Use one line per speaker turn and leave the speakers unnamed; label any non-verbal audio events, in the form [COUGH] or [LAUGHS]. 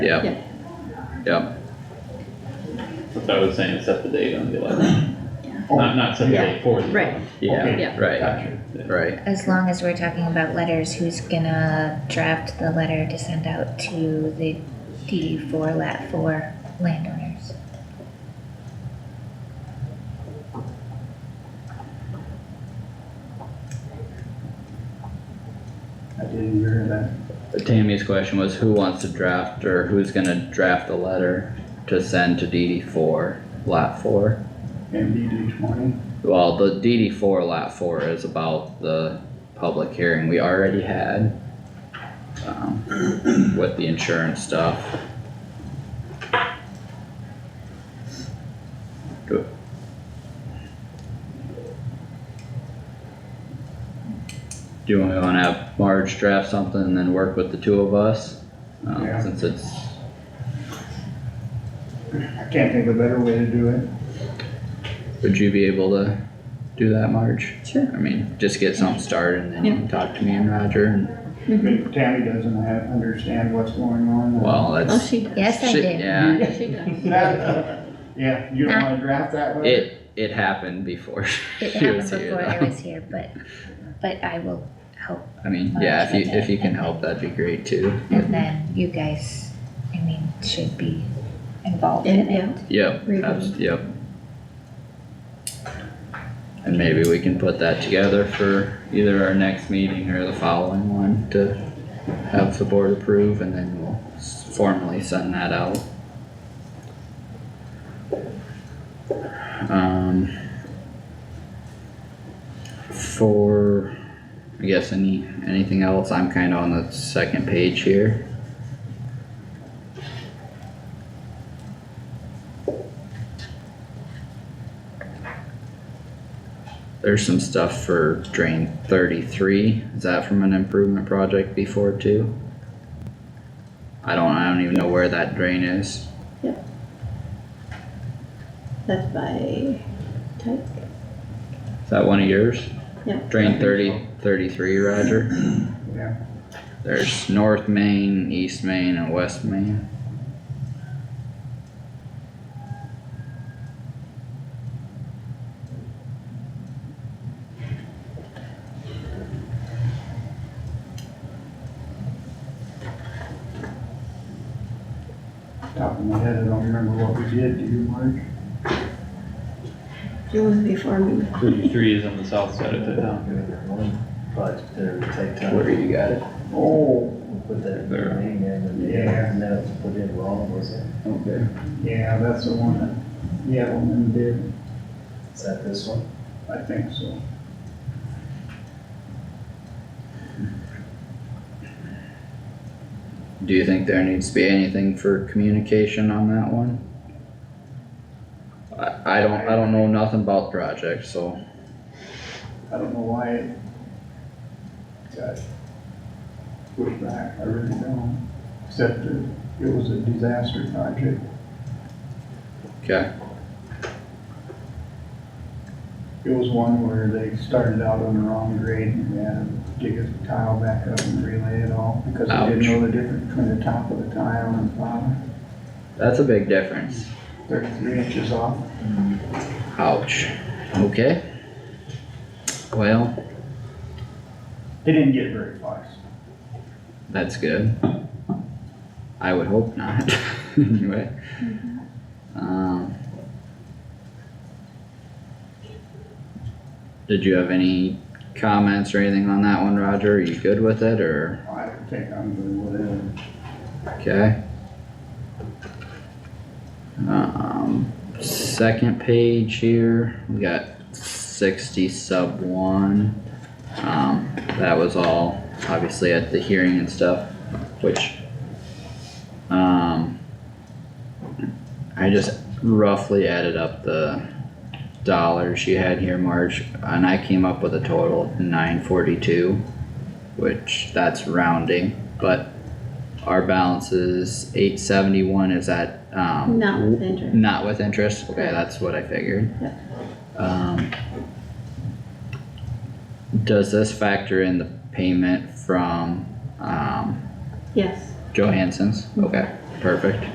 yeah,
Yeah,
yeah,
That's what I was saying, set the date on the eleventh.
Yeah.
Not, not set the
Yeah.
date for the.
Right.
11th.
yeah,
Yeah.
right,
Gotcha. Yeah.
right,
As long as we're talking about letters, who's gonna draft the letter to send out to the D four lat four landowners?
I didn't hear that.
Tammy's question was who wants to draft, or who's gonna draft a letter to send to DD four, lot four?
MDD twenty,
Well, the DD four, lot four is about the public hearing we already had. Um, with the insurance stuff. Do- Do you wanna have Marge draft something and then work with the two of us? Um,
Yeah.
since it's,
I can't think of a better way to do it.
would you be able to do that, Marge?
sure.
I mean, just get something started and then you can talk to me and Roger and,
Mhm.
But Tammy doesn't have, understand what's going on.
well,
Oh,
that's.
she does.
Yes, I
shit,
do.
Yeah,
She does.
That- [LAUGHS] Yeah, you don't wanna draft that letter?
it, it happened before
Mm-hmm.
[LAUGHS]
It
she
happened
was here.
before I
though.
was here, but, but I will help,
I mean, yeah, if you, if you can help, that'd be great too.
and then you guys, I mean, should be involved
And,
in it.
yeah,
Yep,
Review.
abs- yep. And maybe we can put that together for either our next meeting or the following one to have the board approve and then we'll s- formally send that out. Um. For, I guess any, anything else, I'm kinda on the second page here. There's some stuff for drain thirty-three, is that from an improvement project before too? I don't, I don't even know where that drain is,
that's by type.
is that one of yours?
Yeah.
Drain thirty, thirty-three, Roger,
Yeah,
there's North Main, East Main, and West Main.
top of my head, I don't remember what we did, do you, Mark?
It was before me.
Thirty-three is on the south side of the town.
doing their own project there to take
Where
time,
you got it?
Oh,
put that
There.
name in and
Yeah.
and then it was put in wrong, was it?
Okay.
yeah, that's the one that, yeah, the one did,
Is that this one?
I think so.
Do you think there needs to be anything for communication on that one? I, I don't, I don't know nothing about the project, so.
I don't know why it got pushed back, I really don't, except that it was a disaster project.
Okay,
It was one where they started out on the wrong grade and they had to dig a tile back up and relay it all because they
Ouch.
didn't know the difference between the top of the tile and the bottom,
that's a big difference.
thirty-three inches off.
Ouch. Okay. Well,
They didn't get very far.
that's good. I would hope not, [LAUGHS] anyway. Um. Did you have any comments or anything on that one, Roger? Are you good with it, or?
I don't think I'm good with it.
Okay. Um, second page here, we got sixty sub one. Um, that was all obviously at the hearing and stuff, which, um, I just roughly added up the dollars you had here, Marge, and I came up with a total of nine forty-two, which that's rounding, but our balance is eight seventy-one, is that, um?
Not with interest.
Not with interest, okay,
Correct.
that's what I figured.
Yep.
Um. Does this factor in the payment from, um,
Yes,
Johansson's? Okay. perfect.